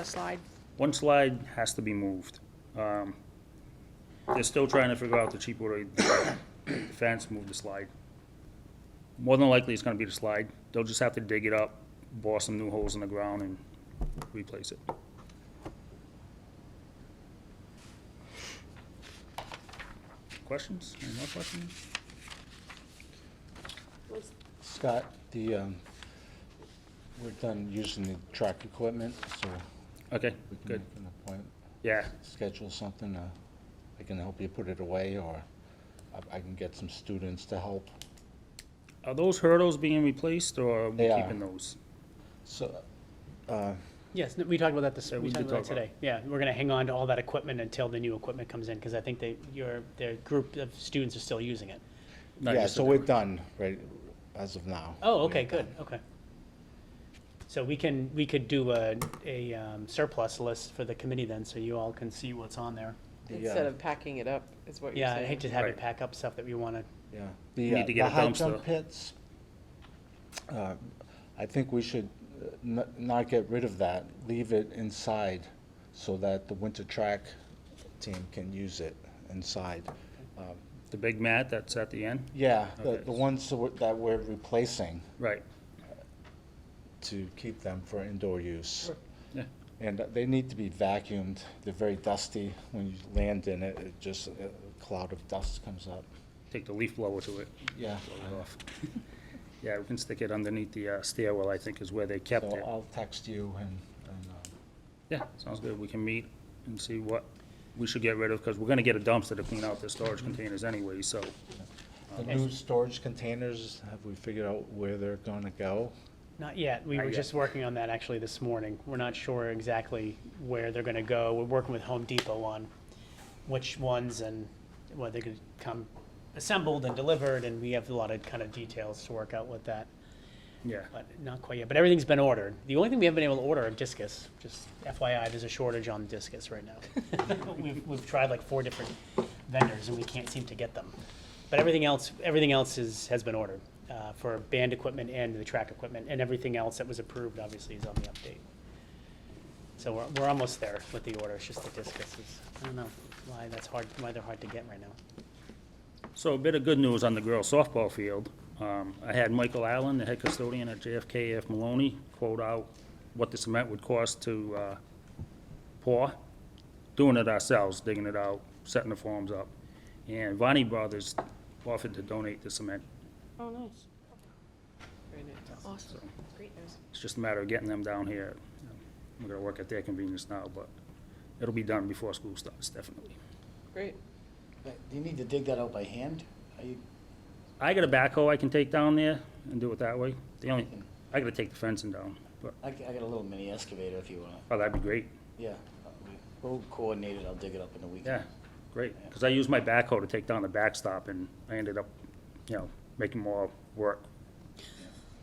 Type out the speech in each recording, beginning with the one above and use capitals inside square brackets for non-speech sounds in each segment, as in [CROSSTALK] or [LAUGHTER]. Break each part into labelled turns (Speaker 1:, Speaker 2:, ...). Speaker 1: a slide.
Speaker 2: One slide has to be moved. Um, They're still trying to figure out the cheap way to do it. fence, move the slide. More than likely, it's gonna be the slide. They'll just have to dig it up, bore some new holes in the ground and replace it. Questions? Any more questions?
Speaker 3: Scott, the, um, we're done using the track equipment, so
Speaker 2: Okay,
Speaker 3: we can
Speaker 2: good.
Speaker 3: make an appointment,
Speaker 2: Yeah,
Speaker 3: schedule something, uh, I can help you put it away, or I- I can get some students to help.
Speaker 2: Are those hurdles being replaced or are we
Speaker 3: They are.
Speaker 2: keeping those?
Speaker 3: So,
Speaker 2: uh,
Speaker 4: Yes, no, we talked about that this,
Speaker 2: Yeah,
Speaker 4: we
Speaker 2: we
Speaker 4: talked
Speaker 2: did
Speaker 4: about that
Speaker 2: talk about
Speaker 4: today. Yeah, we're gonna hang on to all that equipment until the new equipment comes in, because I think they, your, their group of students are still using it.
Speaker 2: Not
Speaker 3: yeah,
Speaker 2: just
Speaker 3: so
Speaker 2: the-
Speaker 3: we're done, right, as of now.
Speaker 4: Oh, okay, good, okay. So we can, we could do a, a um, surplus list for the committee then, so you all can see what's on there.
Speaker 3: The, uh,
Speaker 5: Instead of packing it up, is what you're
Speaker 4: Yeah,
Speaker 5: saying.
Speaker 4: I hate to have you
Speaker 2: Right.
Speaker 4: pack up stuff that we wanna,
Speaker 3: Yeah.
Speaker 2: We need
Speaker 3: The, uh,
Speaker 2: to
Speaker 3: the
Speaker 2: get a
Speaker 3: high jump
Speaker 2: dumpster.
Speaker 3: pits, uh, I think we should uh, n- not get rid of that, leave it inside so that the winter track team can use it inside. Um,
Speaker 2: The big mat that's at the end?
Speaker 3: Yeah, the,
Speaker 2: Okay.
Speaker 3: the ones that we're- that we're replacing
Speaker 2: Right,
Speaker 3: to keep them for indoor use.
Speaker 2: yeah.
Speaker 3: And they need to be vacuumed, they're very dusty, when you land in it, it just, a cloud of dust comes up.
Speaker 2: Take the leaf blower to it.
Speaker 3: Yeah,
Speaker 2: blow it off. Yeah, we can stick it underneath the uh, stairwell, I think is where they
Speaker 3: so
Speaker 2: kept it.
Speaker 3: I'll text you and, and, um,
Speaker 2: Yeah, sounds good. We can meet and see what we should get rid of, because we're gonna get a dumpster to clean out the storage containers anyway, so.
Speaker 3: The new storage containers, have we figured out where they're gonna go?
Speaker 4: not yet, we
Speaker 2: Not
Speaker 4: were
Speaker 2: yet.
Speaker 4: just working on that actually this morning. We're not sure exactly where they're gonna go. We're working with Home Depot on which ones and whether they could come assembled and delivered, and we have a lot of kind of details to work out with that.
Speaker 2: Yeah,
Speaker 4: But not quite yet, but everythinging's been ordered. The only thing we haven't been able to order are discus, just FYI, there's a shortage on discus right now. We've, we've tried like four different vendors and we can't seem to get them. But everything else, everything else is, has been ordered, uh, for band equipment and the track equipment, and everything else that was approved, obviously, is on the update. So we're, we're almost there with the order, it's just the discus is, I don't know why that's hard, why they're hard to get right now.
Speaker 2: so a bit of good news on the girls softball field. Um, I had Michael Allen, the head custodian at JFK F. Maloney, quote out what the cement would cost to, uh, pour, doing it ourselves, digging it out, setting the forms up. And Vonnie Brothers offered to donate the cement
Speaker 5: Oh, nice. Very nice. Awesome. Great news.
Speaker 2: It's just a matter of getting them down here. You know, We're gonna work at their convenience now, but it'll be done before school starts, definitely.
Speaker 5: Great.
Speaker 6: But Do you need to dig that out by hand? Are you,
Speaker 2: I got a backhoe I can take down there and do it that way. The only, I gotta take the fencing down, but,
Speaker 6: I, g- I got a little mini excavator if you wanna,
Speaker 2: oh, that'd be great.
Speaker 6: yeah. We'll coordinate it, I'll dig it up in a weekend.
Speaker 2: Yeah, great. Because I used my backhoe to take down the backstop and I ended up, you know, making more work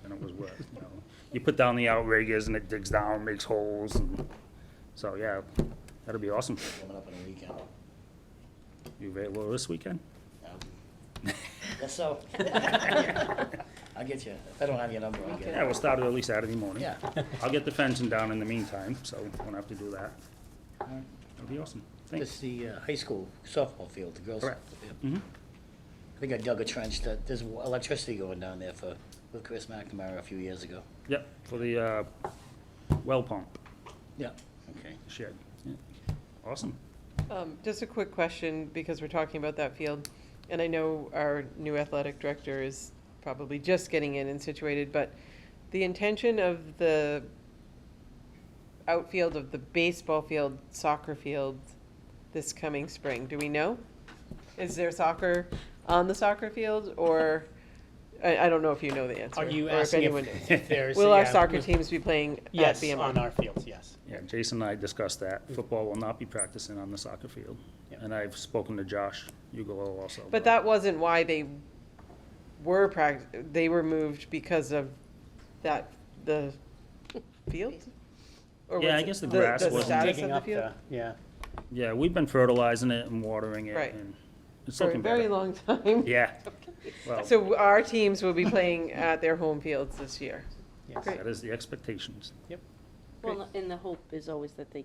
Speaker 2: than it was worth, you know. You put down the outriggers and it digs down, makes holes and, so, yeah, that'll be awesome.
Speaker 6: Coming up in a weekend.
Speaker 2: You available this weekend?
Speaker 6: Um, Guess so. I'll get you, if I don't have your number, I'll get
Speaker 2: Yeah,
Speaker 6: it.
Speaker 2: we'll start early Saturday morning.
Speaker 6: Yeah.
Speaker 2: I'll get the fencing down in the meantime, so won't have to do that. That'll be awesome.
Speaker 6: This
Speaker 2: Thanks.
Speaker 6: is the uh, high school softball field, the girls.
Speaker 2: Correct.
Speaker 6: softball field.
Speaker 2: Mhm.
Speaker 6: I think I dug a trench that, there's wa- electricity going down there for, with Chris McNamara a few years ago.
Speaker 2: Yep, for the, uh, well pump
Speaker 6: Yeah. Okay.
Speaker 2: shed. Yeah. Awesome.
Speaker 5: Um, just a quick question, because we're talking about that field, and I know our new athletic director is probably just getting in and situated, but the intention of the outfield of the baseball field, soccer field, this coming spring, do we know? Is there soccer on the soccer field, or, I, I don't know if you know the answer.
Speaker 4: Are you
Speaker 5: or if
Speaker 4: asking
Speaker 5: anyone
Speaker 4: if,
Speaker 5: knows.
Speaker 4: [LAUGHS] if there's?
Speaker 5: Will our
Speaker 4: yeah,
Speaker 5: soccer
Speaker 4: with-
Speaker 5: teams be playing at
Speaker 4: Yes,
Speaker 5: BMR?
Speaker 4: on our fields, yes.
Speaker 2: Yeah, Jason and I discussed that. Football will not be practicing on the soccer field.
Speaker 4: Yep.
Speaker 2: And I've spoken to Josh Ugolo also.
Speaker 5: But that wasn't why they were prac- they were moved because of that, the field? Or
Speaker 2: Yeah,
Speaker 5: was
Speaker 2: I
Speaker 5: it
Speaker 2: guess the grass
Speaker 5: The
Speaker 2: wasn't-
Speaker 5: status of
Speaker 4: Digging
Speaker 5: the
Speaker 4: up
Speaker 5: field?
Speaker 4: the- Yeah.
Speaker 2: Yeah, we've been fertilizing it and watering it
Speaker 5: Right.
Speaker 2: and it's
Speaker 5: For a
Speaker 2: looking
Speaker 5: very
Speaker 2: better.
Speaker 5: long time. [LAUGHS]
Speaker 2: Yeah. Well,
Speaker 5: So our teams will be playing at their home fields this year.
Speaker 4: Yes.
Speaker 5: Great.
Speaker 2: that is the expectations.
Speaker 4: Yep.
Speaker 1: Well, and the hope is always that they